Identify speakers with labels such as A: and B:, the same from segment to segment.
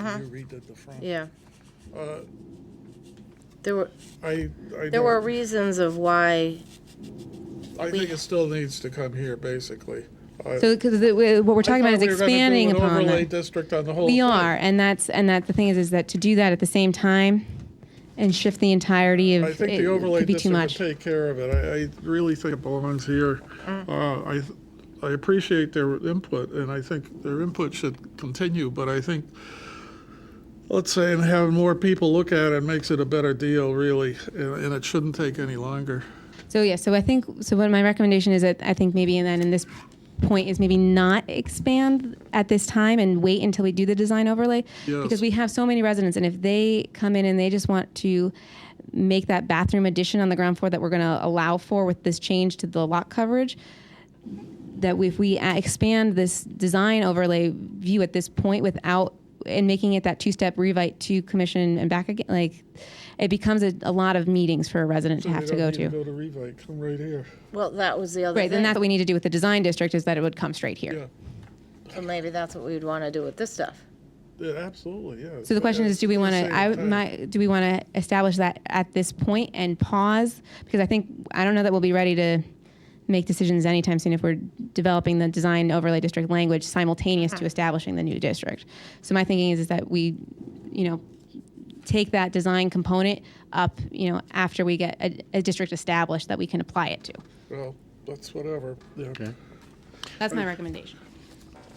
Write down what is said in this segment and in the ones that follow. A: Uh-huh.
B: Can you read at the front?
C: Yeah.
B: Uh,
C: There were,
B: I, I
C: there were
B: don't,
C: reasons of why,
B: I think it still needs to come here, basically.
A: So, because what we're talking
B: I
A: about
B: thought we were
A: is
B: gonna do
A: expanding
B: an
A: upon
B: overlay
A: that.
B: district on the whole.
A: We
B: thing.
A: are, and that's and that the thing is, is that to do that at the same time, and shift the entirety of
B: I think
A: it
B: the overlay
A: could be too
B: district
A: much.
B: would take care of it. I, I really think it belongs here.
A: Mm.
B: Uh, I, th- I appreciate their input, and I think their input should continue, but I think, let's say, and having more people look at it makes it a better deal, really, and, and it shouldn't take any longer.
A: So yeah, so I think so. What my recommendation is that I think maybe and then in this point is maybe not expand at this time and wait until we do the design overlay
B: Yes.
A: because we have so many residents and if they come in and they just want to make that bathroom addition on the ground floor that we're going to allow for with this change to the lot coverage that if we a- expand this design overlay view at this point without and making it that two-step revite to commission and back again like it becomes a, a lot of meetings for a resident to have to
B: They
A: go
B: don't
A: to
B: need Go to Revite, come right here.
C: well, that was the other
A: Right, then
C: thing.
A: that's what we need to do with the design district is that it would come straight here.
B: Yeah,
C: So maybe that's what we'd want to do with this stuff.
B: yeah, absolutely, yeah.
A: So the question is, do we want to?
B: Same
A: I
B: time.
A: my, do we want to establish that at this point and pause because I think I don't know that we'll be ready to make decisions anytime soon if we're developing the design overlay district language simultaneous
B: Uh-huh.
A: to establishing the new district. So my thinking is is that we, you know, take that design component up, you know, after we get a, a district established that we can apply it to.
B: Well, that's whatever, yeah.
A: That's my recommendation.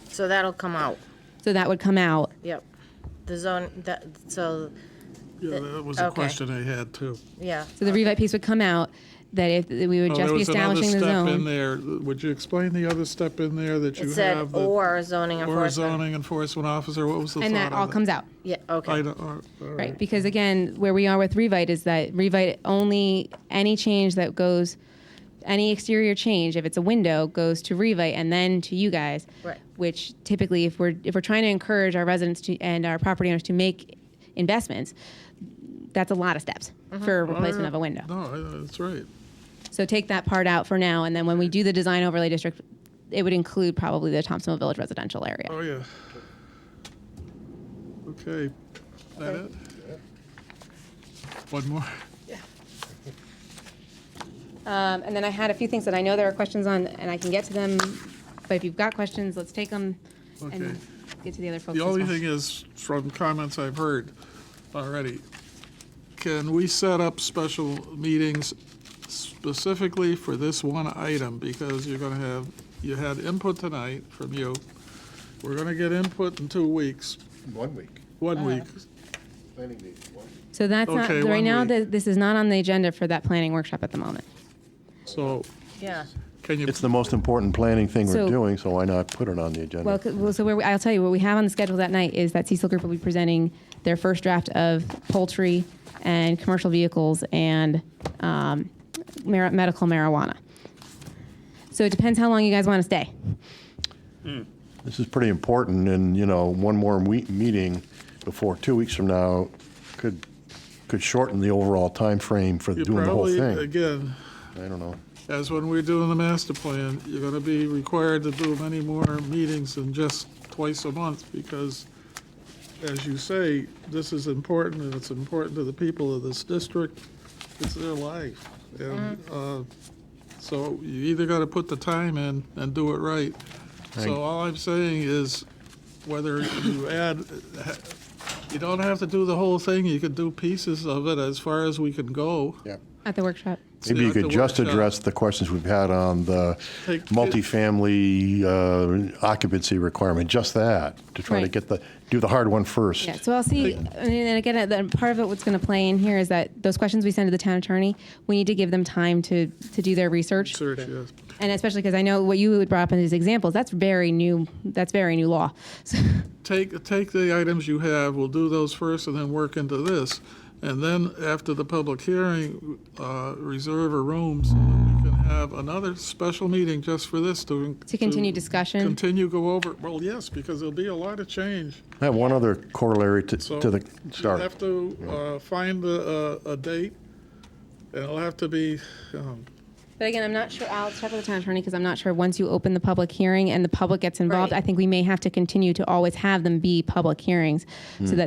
C: So that'll come out.
A: So that would come out.
C: Yep. The zone, that, so,
B: Yeah, that was a
C: Okay.
B: question I had, too.
C: yeah.
A: So the revite piece would come out, that if, that we would
B: Oh,
A: just
B: there
A: be
B: was another
A: establishing the
B: step In
A: zone.
B: there, would you explain the other step in there that
C: It
B: you
C: said,
B: have? that-
C: or zoning
B: Or
C: enforcement.
B: zoning enforcement officer, what was the thought
A: And that all
B: on it?
A: comes out,
C: Yeah,
B: I
C: okay.
B: don't, uh, all all
A: right?
B: right.
A: Because again, where we are with revite is that revite only, any change that goes, any exterior change, if it's a window, goes to revite and then to you guys.
C: Right.
A: Which typically, if we're, if we're trying to encourage our residents to, and our property owners to make investments, that's a lot of steps for a replacement of a window.
B: No, I- that's right.
A: So take that part out for now, and then when we do the design overlay district, it would include probably the Thompsonville Village residential area.
B: Oh, yeah. Okay, that it? One more?
A: Um, and then I had a few things that I know there are questions on, and I can get to them, but if you've got questions, let's take them
B: Okay.
A: and get to the other folks.
B: The
A: as
B: only
A: well.
B: thing is, from comments I've heard already, can we set up special meetings specifically for this one item? Because you're gonna have, you had input tonight from you. We're gonna get input in two weeks,
D: One week,
B: one week.
D: planning meeting, one week.
A: So that's not,
B: Okay,
A: right
B: one
A: now,
B: week.
A: th- this is not on the agenda for that planning workshop at the moment.
B: So
C: Yeah.
B: can you,
D: It's the most important planning thing
A: So-
D: we're doing, so why not put it on the agenda?
A: Well, c- well, so where we, I'll tell you what we have on the schedule that night is that Cecil Group will be presenting their first draft of poultry and commercial vehicles and um, mar- medical marijuana. So it depends how long you guys want to stay.
D: This is pretty important, and, you know, one more we meeting before, two weeks from now, could, could shorten the overall time frame for
B: you
D: doing the whole
B: probably, uh,
D: thing.
B: again,
D: I don't know.
B: as when we're doing the master plan, you're gonna be required to do many more meetings than just twice a month, because, as you say, this is important, and it's important to the people of this district, it's their life. And, uh, so you either gotta put the time in and do it right. So all I'm saying is, whether you add, you don't have to do the whole thing, you could do pieces of it as far as we can go.
D: Yeah.
A: At the workshop.
D: Maybe you
B: at the
D: could just
B: workshop.
D: address the questions we've had on the
B: Take-
D: multifamily uh, occupancy requirement, just that, to try to
A: Right.
D: get the, do the hard one first.
A: Yeah, so I'll see. I mean, and again, uh, the, part of it what's going to play in here is that those questions we send to the town attorney, we need to give them time to, to do their research.
B: Search, yes.
A: And especially because I know what you would brought up in these examples, that's very new, that's very new law. So,
B: take, take the items you have, we'll do those first and then work into this. And then after the public hearing, uh, reserve a room so that we can have another special meeting just for this to.
A: To continue discussion?
B: Continue, go over, well, yes, because there'll be a lot of change.
D: I have one other corollary to,
B: So
D: to the,
B: You'll
D: sorry.
B: have to uh, find a, a a date, and it'll have to be, um,
A: But again, I'm not sure, I'll check with the town attorney because I'm not sure, once you open the public hearing and the public gets involved,
C: Right.
A: I think we may have to continue to always have them be public hearings so that